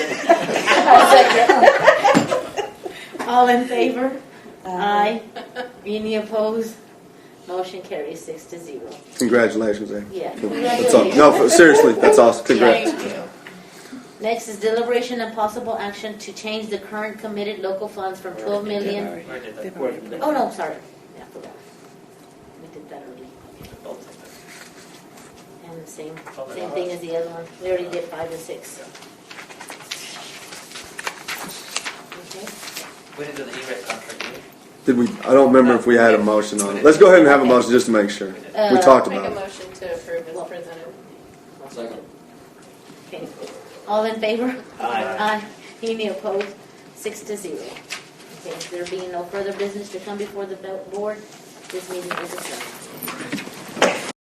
All in favor? Aye. Any opposed? Motion carries six to zero. Congratulations, Amy. Yeah. That's all. No, for- seriously, that's awesome. Congrats. Thank you. Next is deliberation and possible action to change the current committed local funds from twelve million. I did They've that. already put Oh, no, sorry. Yeah, I forgot. We did that already. And the same, same thing as the other one. We already did five and six. Okay. We didn't do the E-rate contract, did Did we, I don't remember if we had a motion on it. Let's go ahead and have a motion just to make sure. we? We did. Uh, We talked Make a about it. motion to approve as presented. Second. Okay. All in favor? Aye. Aye. Any opposed? Six to zero. Okay, there being no further business to come before the bo- board, this meeting is adjourned.